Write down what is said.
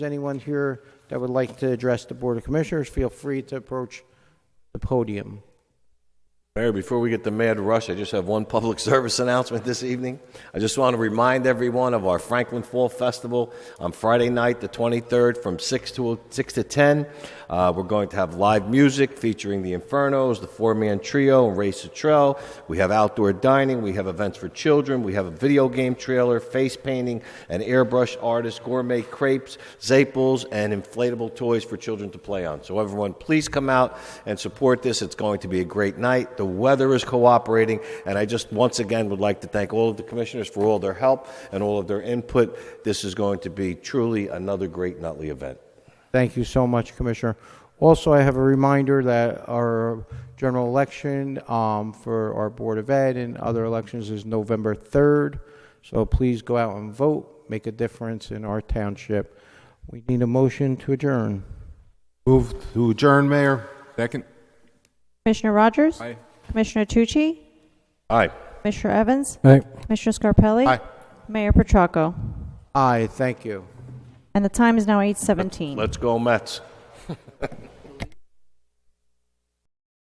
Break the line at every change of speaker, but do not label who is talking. there's anyone here that would like to address the Board of Commissioners, feel free to approach the podium.
Mayor, before we get the mad rush, I just have one public service announcement this evening. I just want to remind everyone of our Franklin Fall Festival on Friday night, the 23rd, from 6 to 6 to 10. Uh, we're going to have live music featuring the Infernos, the Four Man Trio, and Ray Cottrell. We have outdoor dining. We have events for children. We have a video game trailer, face painting, an airbrush artist, gourmet crepes, zaples, and inflatable toys for children to play on. So everyone, please come out and support this. It's going to be a great night. The weather is cooperating, and I just once again would like to thank all of the commissioners for all their help and all of their input. This is going to be truly another great Nutley event.
Thank you so much, Commissioner. Also, I have a reminder that our general election um, for our Board of Ed and other elections is November 3rd, so please go out and vote, make a difference in our township. We need a motion to adjourn.
Move to adjourn, Mayor.
Second.
Commissioner Rogers?
Aye.
Commissioner Tucci?
Aye.
Commissioner Evans?
Aye.
Commissioner Scarpelli?
Aye.
Mayor Petracco?
Aye, thank you.
And the time is now 8:17.
Let's go, Mets.